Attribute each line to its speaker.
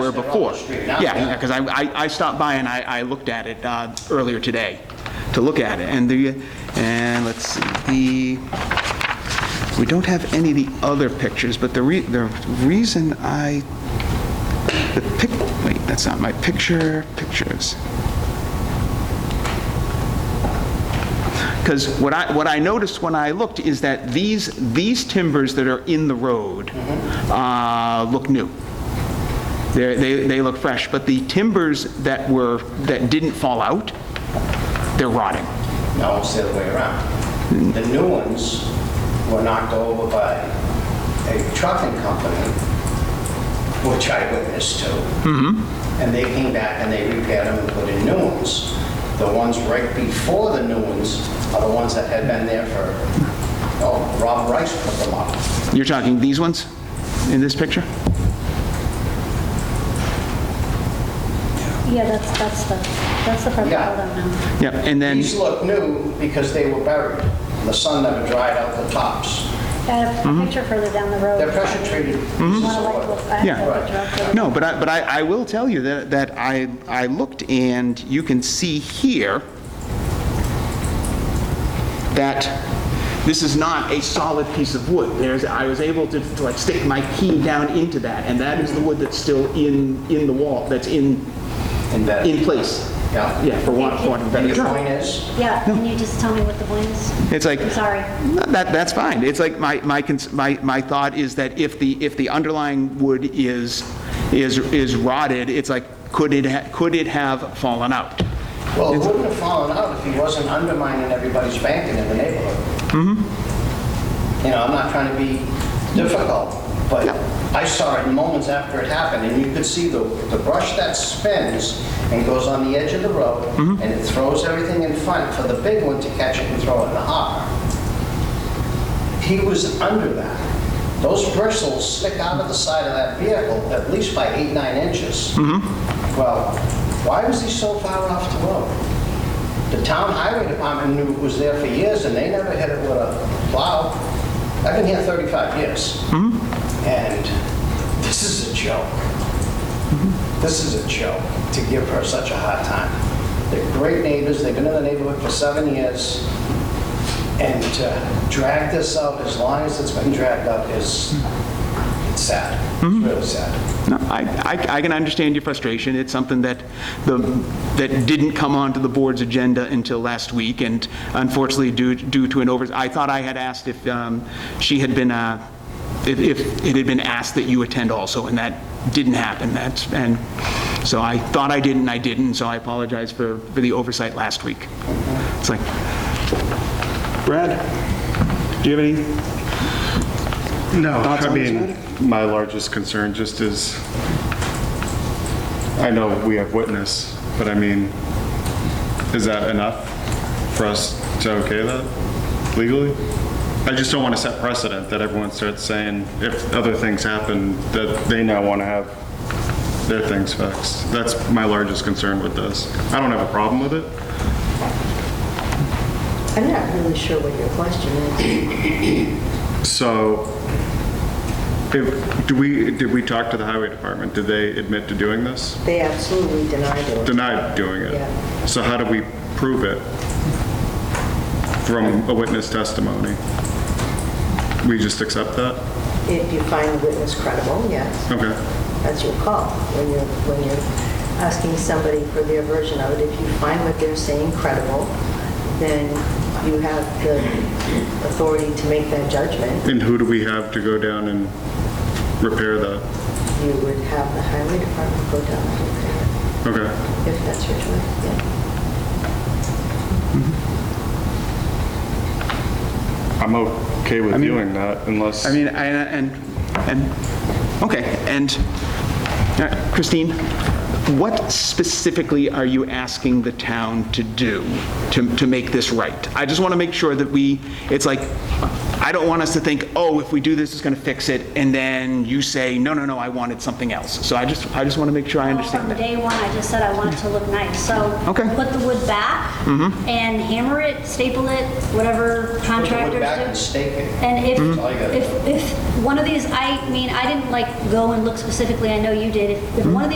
Speaker 1: there before.
Speaker 2: street now,
Speaker 1: Yeah,
Speaker 2: yeah.
Speaker 1: because I, I I stopped by and I, I looked at it uh, earlier today, to look at it, and the, and let's see, the, we don't have any of the other pictures, but the re, the reason I, the pic, wait, that's not my picture, pictures. Because what I, what I noticed when I looked is that these, these timbers that are in the road uh, look new. They're- They, they look fresh, but the timbers that were, that didn't fall out, they're rotting.
Speaker 2: No, it's the other way around. The new ones were knocked over by a trucking company, which I witnessed to.
Speaker 1: Mm-hmm.
Speaker 2: And they came back and they repaired them and put in new ones. The ones right before the new ones are the ones that had been there for, oh, Rob Rice put them up.
Speaker 1: You're talking these ones in this picture?
Speaker 3: Yeah, that's, that's the, that's the part that I don't know.
Speaker 1: Yep, and then,
Speaker 2: These look new because they were buried. The sun never dried out the tops.
Speaker 3: I have
Speaker 1: Mm-hmm.
Speaker 3: a picture further down the road.
Speaker 2: They're pressure treated.
Speaker 3: Wanna like look- I have a picture up
Speaker 1: yeah.
Speaker 3: there.
Speaker 1: No, but I, but I, I will tell you that, that I, I looked and you can see here that this is not a solid piece of wood. There's, I was able to to like stick my key down into that, and that is the wood that's still in, in the wall, that's in,
Speaker 2: Embedded.
Speaker 1: in place.
Speaker 2: Yeah.
Speaker 1: Yeah, for want, for want of a better
Speaker 2: And your
Speaker 1: term.
Speaker 2: point is?
Speaker 3: Yeah, can you just tell me what the one is?
Speaker 1: It's like-
Speaker 3: I'm sorry.
Speaker 1: No, That, that's fine. It's like, my, my, cons- my, my thought is that if the, if the underlying wood is, is, is rotted, it's like, could it, ha- could it have fallen out?
Speaker 2: Well, it wouldn't have fallen out if he wasn't undermining everybody's banking in the neighborhood. You know, I'm not trying to be difficult, but I saw it moments after it happened, and you could see the, the brush that spins and goes on the edge of the road, and it throws everything in front for the big one to catch it and throw it in the harbor. He was under that. Those bristles stick out of the side of that vehicle at least by eight, nine inches. Well, why was he so far off the road? The town highway department knew it was there for years, and they never hit it with a plow. I've been here 35 years. And this is a joke. This is a joke, to give her such a hard time. They're great neighbors, they've been in the neighborhood for seven years, and to drag this out as long as it's been dragged out is it's sad. It's really sad.
Speaker 1: No, I, I- I can understand your frustration. It's something that the, that didn't come onto the board's agenda until last week, and unfortunately due, due to an over, I thought I had asked if um, she had been, uh, if, if it had been asked that you attend also, and that didn't happen. That's, and so I thought I did and I didn't, so I apologize for, for the oversight last week. It's like, Brad, do you have any
Speaker 4: No,
Speaker 1: Thoughts
Speaker 4: I
Speaker 1: on this
Speaker 4: mean, my largest concern just is, I know we have witness, but I mean, is that enough for us to okay that legally? I just don't want to set precedent that everyone starts saying, if other things happen, that they now want to have their things fixed. That's my largest concern with this. I don't have a problem with it.
Speaker 5: I'm not really sure what your question is.
Speaker 4: So, if, do we, did we talk to the highway department? Did they admit to doing this?
Speaker 5: They absolutely denied it.
Speaker 4: denied doing
Speaker 5: Yeah.
Speaker 4: it. So how do we prove it from a witness testimony? We just accept that?
Speaker 5: If you find the witness credible, yes,
Speaker 4: Okay.
Speaker 5: that's your call. When you're, when you're asking somebody for their version of it, if you find what they're saying credible, then you have the authority to make that judgment.
Speaker 4: And who do we have to go down and repair that?
Speaker 5: You would have the highway department go down and repair
Speaker 4: Okay.
Speaker 5: it, if that's your choice, yeah.
Speaker 4: I'm okay with doing that unless,
Speaker 1: I mean, I- and, and, okay, and uh, Christine, what specifically are you asking the town to do to, to make this right? I just want to make sure that we, it's like, I don't want us to think, oh, if we do this, it's going to fix it, and then you say, no, no, no, I wanted something else. So I just, I just want to make sure I
Speaker 3: From
Speaker 1: understand that.
Speaker 3: day one, I just said I want it to look nice, so.
Speaker 1: Okay. Mm-hmm.
Speaker 3: Put the wood back and hammer it, staple it, whatever contractors do.
Speaker 2: back and stake it.
Speaker 3: And if,
Speaker 1: Mm-hmm.
Speaker 2: all you gotta
Speaker 1: Mm-hmm.
Speaker 3: if, if one of these, I mean, I didn't like go and look specifically, I know you did. If- If one of these